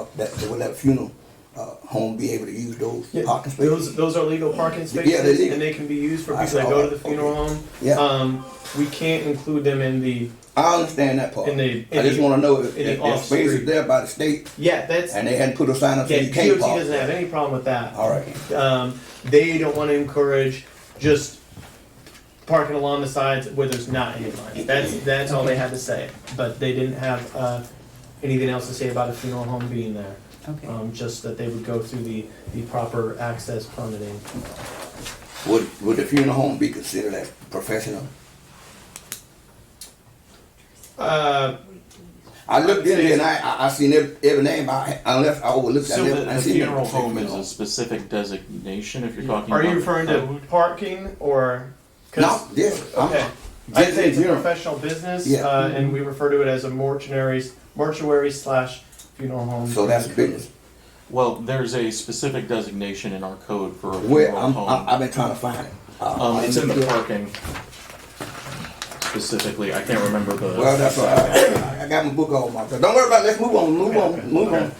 uh, that, will that funeral, uh, home be able to use those Yeah, parking spaces? Those, those are legal parking they're spaces, legal. and they can be used for I people that saw go that. to the funeral home. Yeah. Um, we can't include them in the, I understand that part. In the- I just in the- wanna know if, in the if that space is off-street. there by the state yeah, that's, yeah, and they hadn't put a sign up saying you DOT can't park. doesn't have any problem with that. All right, Um, they don't wanna encourage just parking along the sides where there's not any lines. That's, that's all they had to say, but they didn't have, uh, anything else to say about a funeral home being there. Okay. Um, just that they would go through the, the proper access permitting. would, would the funeral home be considered as professional? Uh, I looked in there and I, I, I seen every, every name, I, unless I overlooked, I So the never, I the seen funeral every home is funeral a home. specific designation, if you're talking about. are you the referring to code? parking or? 'cause- No, yes, Okay. I'm, I'd say yes, it's a funeral. professional business, Yeah. uh, and we refer to it as a mortuary, mortuary slash funeral home. so that's business. Well, there's a specific designation in our code for a Where, funeral I'm, I- home. I've been trying to find it. Uh, Um, I it's in the looked up- parking specifically, I can't remember the. Well, that's all right. I got my book on my, don't worry about it, let's move on, move on, move on. Okay. We'll-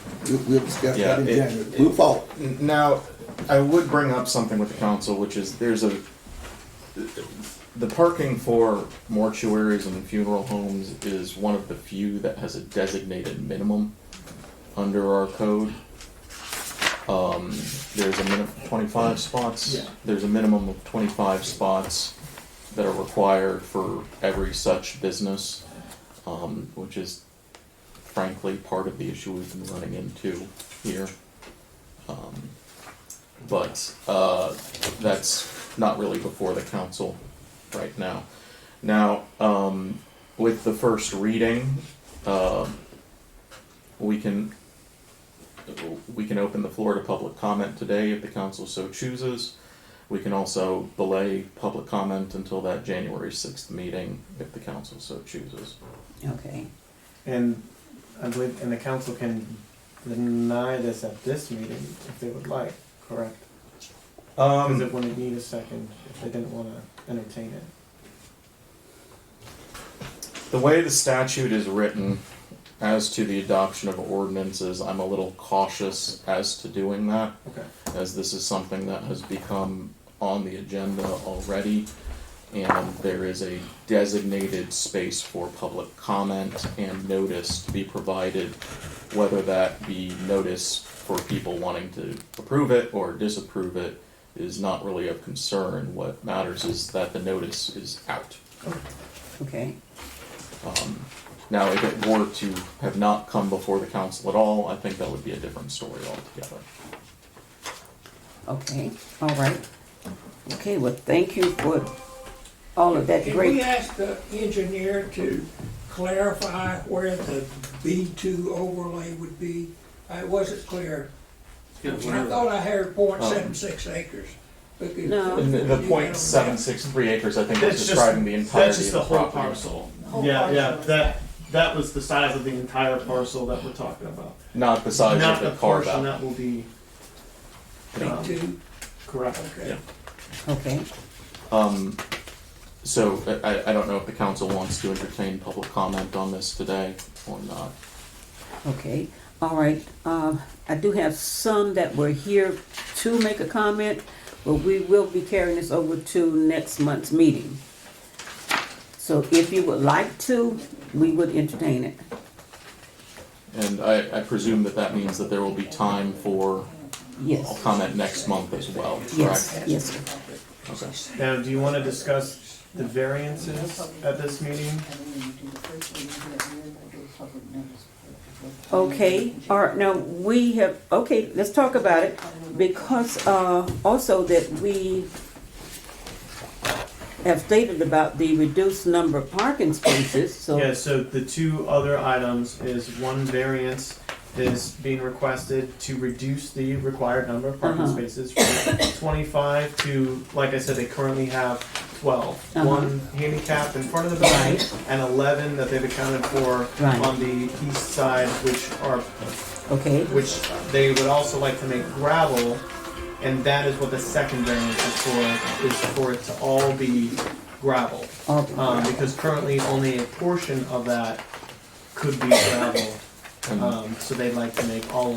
We'll discuss that in Yeah, it- January, move forward. Now, I would bring up something with the council, which is there's a, the parking for mortuaries and funeral homes is one of the few that has a designated minimum under our code. Um, there's a minimum twenty-five spots. Yeah. There's a minimum of twenty-five spots that are required for every such business, um, which is frankly part of the issue we've been running into here. Um, but uh, that's not really before the council right now. Now, um, with the first reading, uh, we can we can open the floor to public comment today if the council so chooses. We can also delay public comment until that January sixth meeting if the council so chooses. Okay. And I believe, and the council can deny this at this meeting if they would like, correct? Um, Because it wouldn't need a second if they didn't wanna entertain it. The way the statute is written as to the adoption of ordinances, I'm a little cautious as to doing that, Okay. as this is something that has become on the agenda already. And there is a designated space for public comment and notice to be provided, whether that be notice for people wanting to approve it or disapprove it is not really of concern. What matters is that the notice is out. Okay. Um, Now, if it were to have not come before the council at all, I think that would be a different story altogether. Okay. All right. Okay. Well, thank you for all of that Can we great. ask the engineer to clarify where the B2 overlay would be? Uh, It wasn't clear. I thought I heard point seven six acres. because- No. And the- the point seven six three acres, I think, is That's just- describing the that's entirety just of the the whole property. parcel. Whole Yeah, yeah, parcel. that, that was the size of the entire parcel that we're talking about. Not the size Not of the Oh, the carve portion out. that will be, um, B2, correct. okay. Okay. Um, so I, I- I don't know if the council wants to entertain public comment on this today or not. Okay. All right. Um, I do have some that were here to make a comment, but we will be carrying this over to next month's meeting. So if you would like to, we would entertain it. And I, I presume that that means that there will be time for Yes. comment next month as well, correct? Yes. Yes. sir. Okay. Now, do you wanna discuss the variances at this meeting? Oh, Okay, all right, now, we have, okay, let's talk about it, because, uh, also that we have stated about the reduced number of parking spaces, Yeah, so, so the two other items is one variance is being requested to reduce the required number of parking Uh-huh. spaces from twenty-five to, like I said, they currently have twelve. Uh-huh. One handicapped in front of the building Right. and eleven that they've accounted for Right. on the east side, which are, okay, which they would also like to make gravel. And that is what the second variance is for, is for it to all be gravel all, um, because currently only a portion of that could be gravel. And- Um, so they'd like to make all of